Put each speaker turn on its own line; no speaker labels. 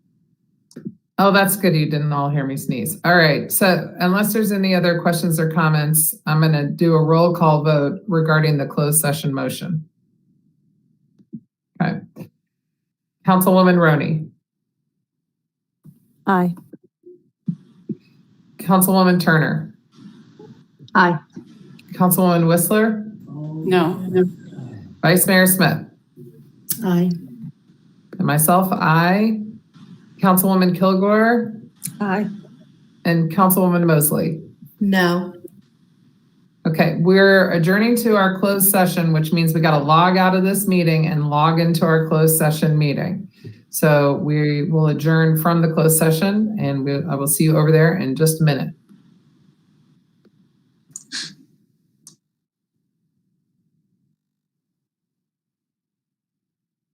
Oh, that's good. You didn't all hear me sneeze. All right. So unless there's any other questions or comments, I'm going to do a roll call vote regarding the closed session motion. Okay. Councilwoman Roney,
Aye.
Councilwoman Turner,
Aye.
Councilwoman Whistler,
No.
Vice Mayor Smith,
Aye.
and myself, I, Councilwoman Kilgore,
Aye.
and Councilwoman Mosley.
No.
Okay, we're adjourning to our closed session, which means we gotta log out of this meeting and log into our closed session meeting. So we will adjourn from the closed session and we, I will see you over there in just a minute.